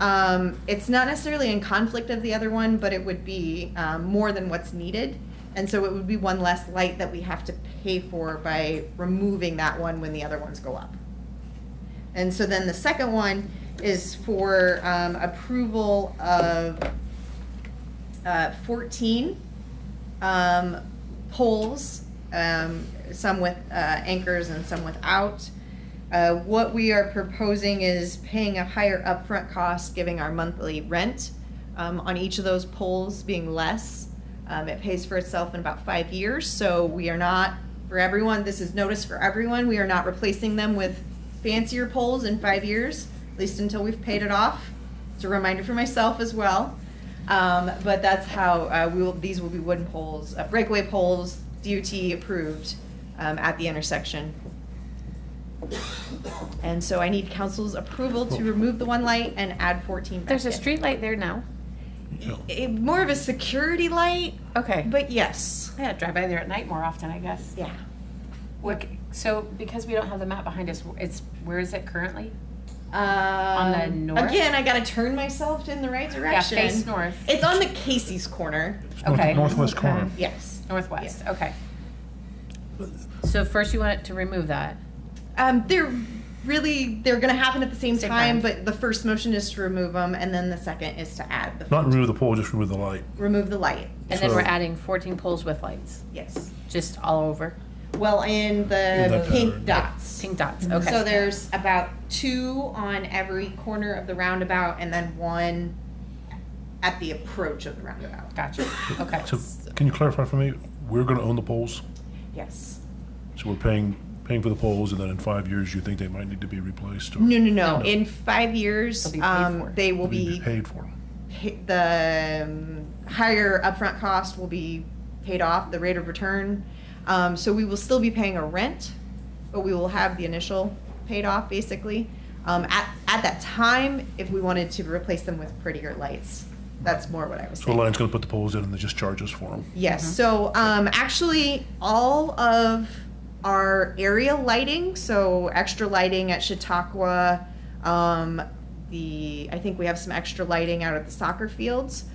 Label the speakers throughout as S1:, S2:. S1: Um, it's not necessarily in conflict of the other one, but it would be um, more than what's needed. And so it would be one less light that we have to pay for by removing that one when the other ones go up. And so then the second one is for um, approval of uh, 14 um, poles, um, some with uh, anchors and some without. Uh, What we are proposing is paying a higher upfront cost, giving our monthly rent um, on each of those poles being less. Um, It pays for itself in about five years, so we are not, for everyone, this is notice for everyone, we are not replacing them with fancier poles in five years, at least until we've paid it off. It's a reminder for myself as well. Um, but that's how uh, we will, these will be wooden poles, uh, breakaway poles, DOT approved um, at the intersection. And so I need council's approval to remove the one light and add 14 back
S2: There's a
S1: in.
S2: street light there now.
S1: It- more of a security light,
S2: Okay.
S1: but yes.
S2: Yeah, drive by there at night more often, I guess.
S1: Yeah.
S2: What, so because we don't have the map behind us, it's, where is it currently?
S1: Um,
S2: the north?
S1: Again, I gotta turn myself in the right direction.
S2: Yeah, face north.
S1: It's on the Casey's corner.
S3: North-
S2: Okay.
S3: Northwest corner.
S2: Okay.
S1: Yes.
S2: Northwest, okay. So first you want it to remove that.
S1: Um, they're really they're going to happen at the same,
S2: Same
S1: time,
S2: time.
S1: but the first motion is to remove them, and then the second is to add the
S3: Not remove the pole, just remove the light.
S1: remove the light.
S2: And then we're
S3: So-
S2: adding 14 poles with lights,
S1: Yes.
S2: just all over,
S1: Well, in
S3: In
S1: the
S3: the
S1: pink
S3: pattern.
S1: dots.
S2: pink
S4: Mm-hmm.
S2: dots, okay.
S1: So there's about two on every corner of the roundabout, and then one at the approach of the roundabout.
S2: Gotcha, okay.
S3: So can you clarify for me? We're going to own the poles,
S1: Yes.
S3: so we're paying paying for the poles, and then in five years, you think they might need to be replaced or
S1: No, no, no.
S3: No.
S1: In five years,
S2: They'll be paid
S1: um,
S2: for.
S1: they will
S3: need to
S1: be
S3: paid for?
S1: pa- the um, higher upfront cost will be paid off, the rate of return. Um, so we will still be paying a rent, but we will have the initial paid off basically. Um, at, at that time, if we wanted to replace them with prettier lights, that's more what I was
S3: So the
S1: saying.
S3: line's going to put the poles in, and they just charge us for them.
S1: Yes, so um, actually, all of our area lighting, so extra lighting at Chautauqua, um, the, I think we have some extra lighting out at the soccer fields.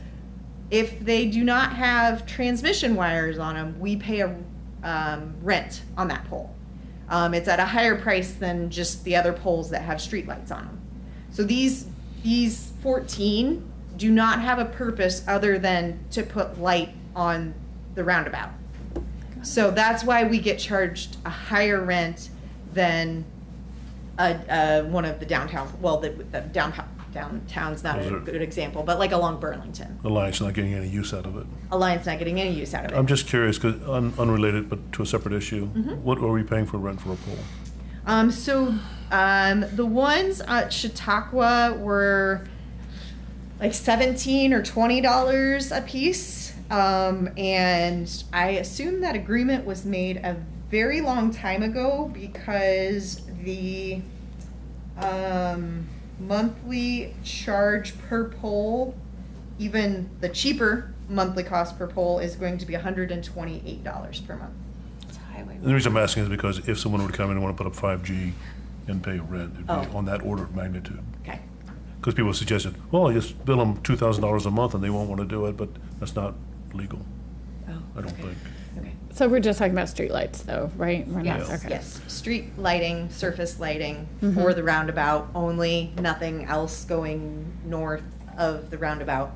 S1: If they do not have transmission wires on them, we pay a um, rent on that pole. Um, it's at a higher price than just the other poles that have streetlights on them. So these, these 14 do not have a purpose other than to put light on the roundabout. So that's why we get charged a higher rent than a, uh, one of the downtown, well, the, the downtown, downtown's not
S3: Those
S1: a
S3: are-
S1: good example, but like along Burlington.
S3: The line's not getting any use out of it.
S1: Alliance not getting any use out of it.
S3: I'm just curious, because un- unrelated but to a separate issue,
S1: Mm-hmm.
S3: what are we paying for rent for a pole?
S1: Um, so um, the ones at Chautauqua were like seventeen or twenty dollars a piece, um, and I assume that agreement was made a very long time ago because the um, monthly charge per poll, even the cheaper monthly cost per poll, is going to be one hundred and twenty-eight dollars per month.
S2: It's highway.
S3: And the reason I'm asking is because if someone were to come in and want to put up 5G and pay rent, it'd be
S1: Oh.
S3: on that order of magnitude.
S1: Okay.
S3: Because people suggested, well, just bill them $2,000 a month and they won't want to do it, but that's not legal,
S1: Oh,
S3: I don't think.
S1: okay.
S5: So we're just talking about streetlights though, right? We're not-
S3: Yes.
S5: okay.
S1: Yes, street lighting, surface lighting for the roundabout only, nothing else going north of the roundabout.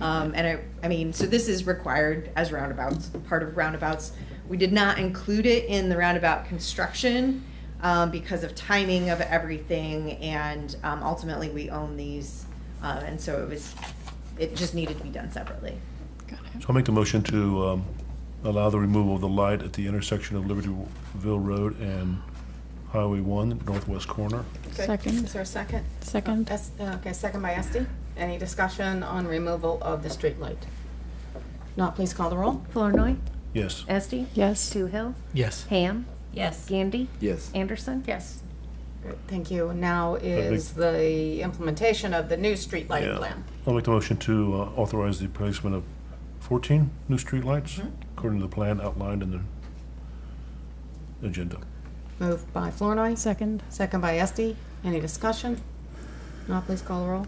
S1: Um, and I, I mean, so this is required as roundabouts, part of roundabouts. We did not include it in the roundabout construction, um, because of timing of everything and, um, ultimately we own these. Uh, and so it was, it just needed to be done separately.
S5: Got it.
S3: So I'll make the motion to um, allow the removal of the light at the intersection of Libertyville Road and Highway 1, northwest corner.
S4: Good.
S5: Second.
S4: Is there a second?
S5: Second.
S4: Es- Okay, second by Esti. Any discussion on removal of the street light? Not, please call the roll.
S6: Flournoy,
S3: Yes.
S6: Esti,
S5: Yes.
S6: Toohill,
S7: Yes.
S6: Ham,
S2: Yes.
S6: Gandy,
S7: Yes.
S6: Anderson.
S2: Yes.
S4: Great, Thank you. Now is the implementation of the new street lighting
S3: Yeah.
S4: plan.
S3: I'll make the motion to uh, authorize the placement of 14 new streetlights according to the plan outlined in the agenda.
S4: Moved by Flournoy,
S5: Second.
S4: second by Esti. Any discussion? Not, please call the roll.